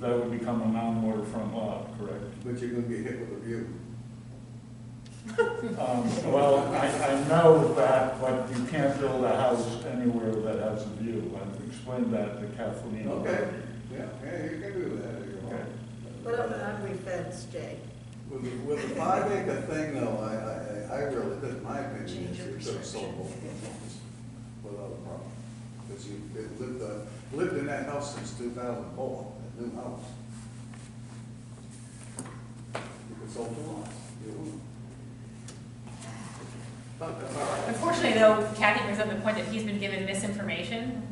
that would become a non-waterfront lot, correct? But you're gonna get hit with a view. Um, Well, I, I know that, but you can't build a house anywhere that has a view. I've explained that to Kathleen. Okay, yeah, yeah, you can do that. if you want. Okay. What about we fence, Jay? With, the- with the five acre thing though, I, I, I really, that's my opinion, Change your is it's perception. soluble without a problem. Because you, it lived, uh, lived in that house since two thousand four, that new house. You could sold the lots, you wouldn't. But that's all uh, right. Unfortunately, though, Kathy brings up the point that he's been given misinformation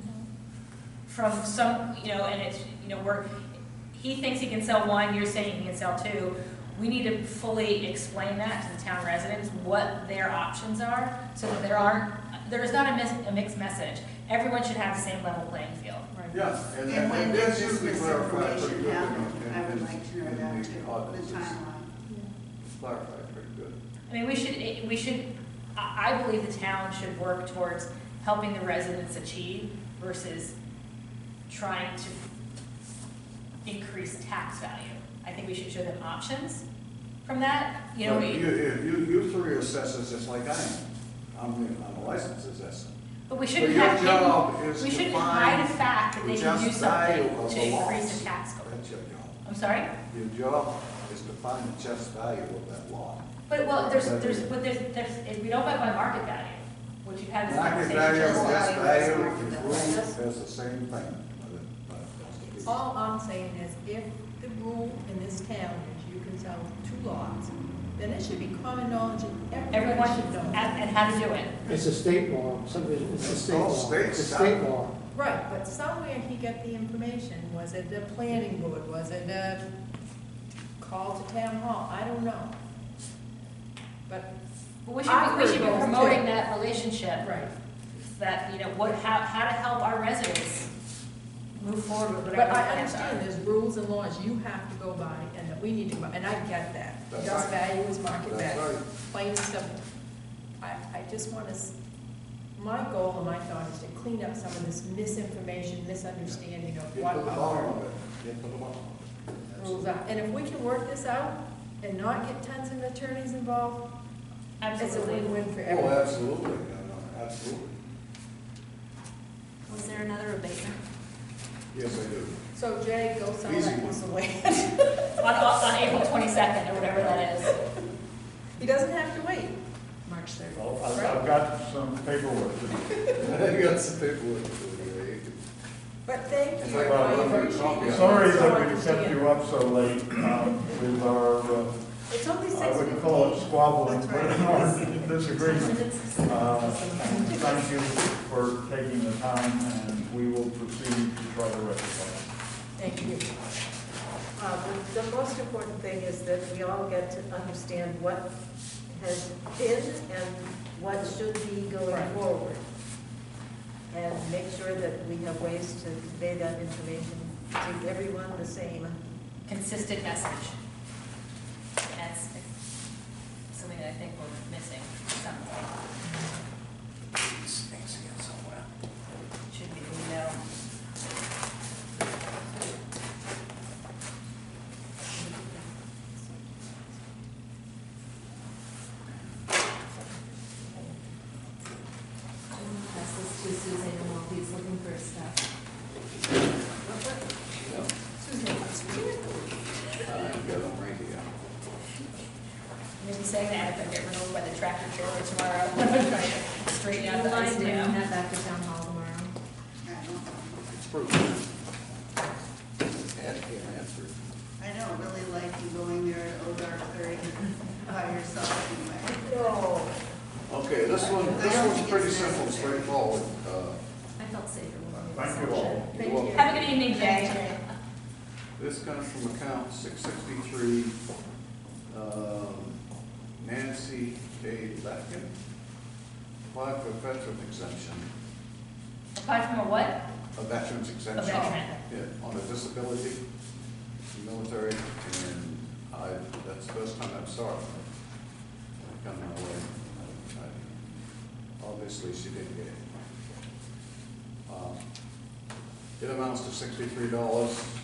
from some, you know, and it's, you know, we're, he thinks he can sell one, you're saying he can sell two. We need to fully explain that to the town residents, what their options are, so that there aren't, there is not a mis, a mixed message. Everyone should have the same level playing field. Yes, and, And when and did that's this usually clarified pretty misinformation good. happen? in- in- I would like to know in that the too, ordinances. the timeline. It's Clarified pretty good. I mean, we should, it- we should, I, I believe the town should work towards helping the residents achieve versus trying to increase tax value. I think we should show them options from that, you know, But You, we, you, you- you three are assessors just like I am. I'm, the- I'm a licensed assessor. but we shouldn't But your have job hidden, is we to shouldn't find hide the fact that the they can do just value something of to the increase laws. the tax code. That's your job. I'm sorry? Your job is to find the just value of that law. But, well, there's, there's, but there's, there's, if we don't buy by market value, which you've had this Market conversation. value, just just value, value, market and value. rules, that's the same thing. but it- but it's- All I'm saying is if the rule in this town is you can sell two lots, then it should be common knowledge and Everyone, everyone should and, know. and how to do it. It's a state law, subdivision, it's a state All law. It's a states state have- law. Right, but somewhere he got the information. Was it the planning board? Was it a call to town hall? I don't know. But, But we should, be- we should be Awkward roles, promoting too. that relationship, right. that, you know, what, how, how to help our residents move forward with But whatever I plans understand are. there's rules and laws you have to go by and that we need to go by, and I get that. That's Just right. value is market That's value. right. Plain simple. I, I just want to, s- my goal and my thought is to clean up some of this misinformation, misunderstanding of Get what to the bottom our of it, get to the bottom of it. That's- rules are. And if we can work this out and not get tons of attorneys involved, it's a Absolutely. win-win for Oh, everyone. absolutely, no, no, absolutely. Was there another abatement? Yes, I do. So Jay, go sell Easy that one. piece of land. On, on April twenty-second, or whatever that is. He doesn't have to wait. March third. Well, I've, I've got some paperwork to do. I got some paperwork to do here. But thank It's you. like, I well, appreciate I'm sorry. Sorry it. So that we understand. kept you up so late um, with our, uh, It's only six I fifteen. wouldn't call it squabbling, That's but right. our disagreement. Uh, Thank you for taking the time, and we will proceed to try to rectify. Thank you. Uh, the- The most important thing is that we all get to understand what has been and what should be going Right. forward. And make sure that we have ways to convey that information to everyone the same. Consistent message. That's something that I think we're missing, something. Stinks again somewhere. Should be, you know. Pass this to Suzanne while he's looking for stuff. I've got them right here. Maybe saying that if I get run over by the tractor trailer tomorrow, I'm gonna try to straighten out the ice now. that back to town hall tomorrow? It's proof. Add here, answer. I don't really like you going there at Ogar thirty by yourself anyway. No. Okay, this one, this one's pretty simple, straightforward. Uh, I felt safer when we were. Thank you all. Thank well, you. Have a good evening, Jay. This comes from account six sixty-three, um, Nancy K. Latkin. Apply for veteran exemption, Apart from a what? a veteran's exemption. veteran. Yeah, on a disability, military, and I, that's the first time I've saw it. I come my way. I- I- Obviously, she didn't get it. Um, It amounts to sixty-three dollars